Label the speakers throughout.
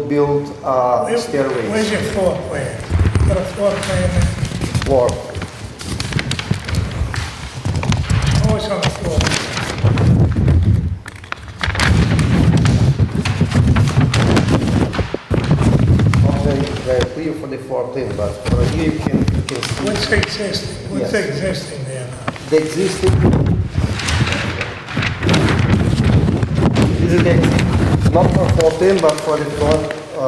Speaker 1: build uh,
Speaker 2: Where's
Speaker 1: stairways
Speaker 2: your floor plan? You Got a floor plan?
Speaker 1: for,
Speaker 2: Oh, it's on the floor.
Speaker 1: not very, very clear for the floor plan, but from here you can, you can see
Speaker 2: What's existing, what's
Speaker 1: Yes.
Speaker 2: existing there now?
Speaker 1: the existing. This is the, ex- not for floor plan, but for the floor, uh,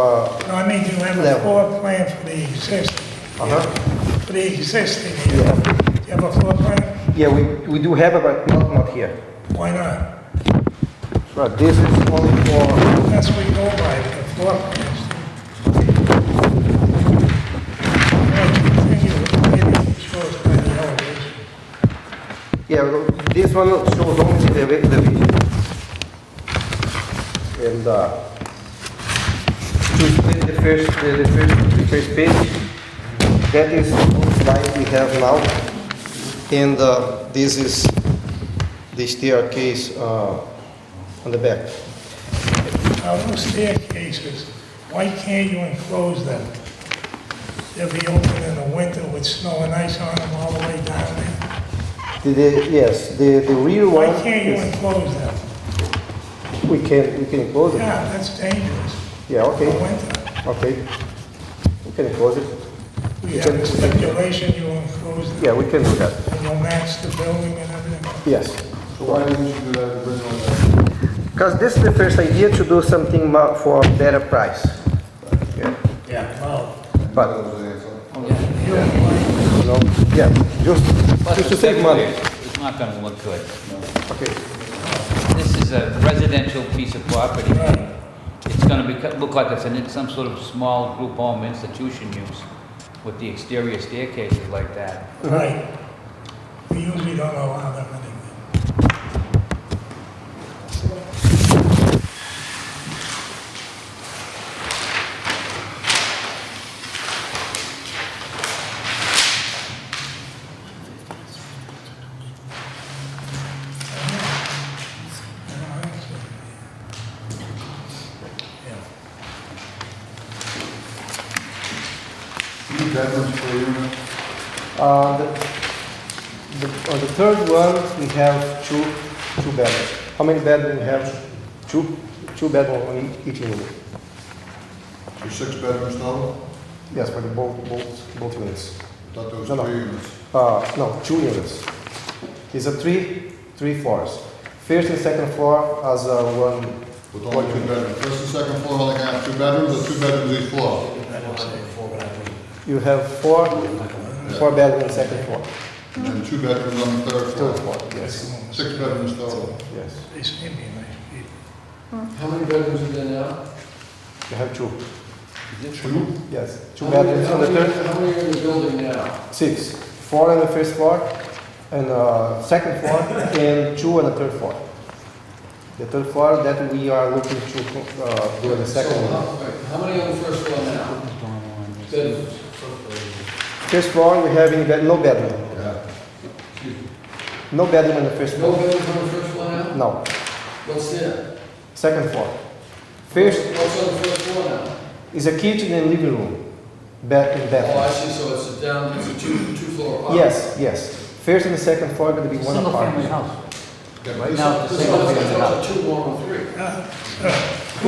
Speaker 2: No, I mean, you have a
Speaker 1: Level.
Speaker 2: floor plan for the existing,
Speaker 1: uh-huh.
Speaker 2: for the existing here.
Speaker 1: Yeah.
Speaker 2: Do you have a floor plan?
Speaker 1: Yeah, we, we do have it, but not, not here.
Speaker 2: Why not?
Speaker 1: But this is only for,
Speaker 2: That's what you go by, the floor plans. Well, continue, maybe it shows by the elevation.
Speaker 1: yeah, this one shows only the, re- the vision. And, uh, to split the first, the, the first, the first page, that is what slide we have now. And, uh, this is the staircase, uh, on the back.
Speaker 2: Now, those staircases, why can't you enclose them? They'll be open in the winter with snow and ice on them all the way down there.
Speaker 1: The, the, yes, the, the rear one
Speaker 2: Why can't you
Speaker 1: is,
Speaker 2: enclose them?
Speaker 1: we can, we can close it.
Speaker 2: Yeah, that's dangerous
Speaker 1: Yeah,
Speaker 2: for
Speaker 1: okay,
Speaker 2: winter.
Speaker 1: okay. We can close it.
Speaker 2: We have a stipulation you enclose them,
Speaker 1: Yeah, we can do that.
Speaker 2: and you'll match the building and everything.
Speaker 1: Yes.
Speaker 3: So why didn't you do that original then?
Speaker 1: Because this is the first idea to do something mo- for better price. Yeah.
Speaker 2: Yeah. Well,
Speaker 1: But,
Speaker 3: That was the answer.
Speaker 2: you don't like,
Speaker 1: you know, yeah, just,
Speaker 4: Plus,
Speaker 1: just to
Speaker 4: it's
Speaker 1: save money.
Speaker 4: decorative. It's not gonna look good.
Speaker 1: Okay,
Speaker 4: This is a residential piece of property.
Speaker 2: Right.
Speaker 4: It's gonna be, look like it's in some sort of small group home institution use with the exterior staircases like that.
Speaker 2: right. We usually don't allow them anyway.
Speaker 3: You need bedrooms per unit?
Speaker 1: uh, the, the, on the third one, we have two, two bedrooms. How many bedrooms we have? Two, two bedrooms on ea- each unit.
Speaker 3: Your six bedrooms total?
Speaker 1: Yes, for the both, both, both units.
Speaker 3: I Thought there was
Speaker 1: No, no.
Speaker 3: three units.
Speaker 1: Uh, no, two units. It's a three, three floors. First and second floor as a one,
Speaker 3: With only two bedrooms. First and second floor only have two bedrooms, or two bedrooms each floor?
Speaker 1: you have four, four bedrooms, second floor,
Speaker 3: And then two bedrooms on the third
Speaker 1: third
Speaker 3: floor.
Speaker 1: floor, yes,
Speaker 3: Six bedrooms total.
Speaker 1: yes.
Speaker 2: They seem to be nice people.
Speaker 5: How many bedrooms are there now?
Speaker 1: You have two,
Speaker 3: Two?
Speaker 1: yes, two
Speaker 5: How many-
Speaker 1: bedrooms on the
Speaker 5: how many-
Speaker 1: third,
Speaker 5: How many are in the building now?
Speaker 1: six, four on the first floor, and uh, second floor, and two on the third floor. The third floor that we are looking to uh, do on the second
Speaker 5: So,
Speaker 1: one.
Speaker 5: how- wait, How many on the first floor now? Bedrooms?
Speaker 1: First floor, we have in bed- no bedroom,
Speaker 3: Yeah.
Speaker 1: no bedroom on the first
Speaker 5: No
Speaker 1: floor,
Speaker 5: bedrooms on the first floor now?
Speaker 1: no,
Speaker 5: What's there?
Speaker 1: second floor. First
Speaker 5: What's on the first floor now?
Speaker 1: is a kitchen and living room, bed and
Speaker 5: Oh, I
Speaker 1: bathroom.
Speaker 5: see, so it's a down, it's a two, two-floor apartment?
Speaker 1: Yes, yes, first and the second floor are gonna be one apartment.
Speaker 4: house.
Speaker 3: Yeah,
Speaker 4: Right
Speaker 3: this-
Speaker 4: now, it's a
Speaker 5: So
Speaker 3: This
Speaker 5: it's
Speaker 4: single
Speaker 3: house-
Speaker 4: family.
Speaker 5: a two, one, or three?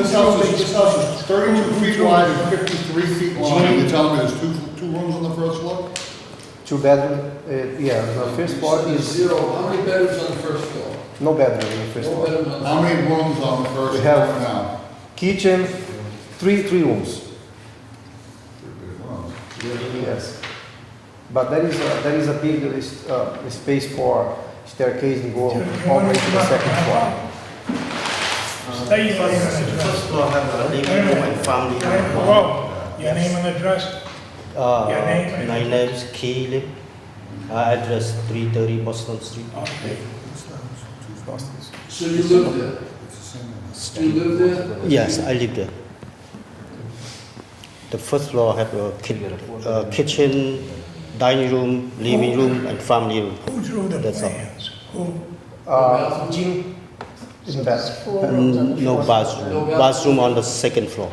Speaker 3: this house is, this house is thirty-two feet wide and fifty-three feet long. And You're telling me there's two, two rooms on the first floor?
Speaker 1: Two bedroom, uh, yeah, the first floor
Speaker 5: So there's
Speaker 1: is
Speaker 5: Zero, how many bedrooms on the first floor?
Speaker 1: no bedroom in the first
Speaker 5: No
Speaker 1: floor.
Speaker 5: bedroom on the.
Speaker 3: How many rooms on the first
Speaker 1: We
Speaker 3: floor
Speaker 1: have-
Speaker 3: now?
Speaker 1: Kitchen, three, three rooms,
Speaker 3: Three big rooms.
Speaker 1: yes. But there is, a- there is a big list, uh, space for staircase and go all the way to the second floor.
Speaker 2: State your name and address.
Speaker 6: First floor have a living room and family. room.
Speaker 2: Hello, your name and address?
Speaker 6: Uh,
Speaker 2: Your name?
Speaker 6: My name's Caleb. Uh, address 330 Boston Street.
Speaker 5: So you live there? You live there?
Speaker 6: Yes, I live there. The first floor have a ki- uh, kitchen, dining room, living room, and family room.
Speaker 2: Who drew the
Speaker 6: That's all.
Speaker 2: plans? Who?
Speaker 1: Uh, gym in the bathroom.
Speaker 6: Mm, No bathroom.
Speaker 5: No bathroom.
Speaker 6: Bathroom on the second floor.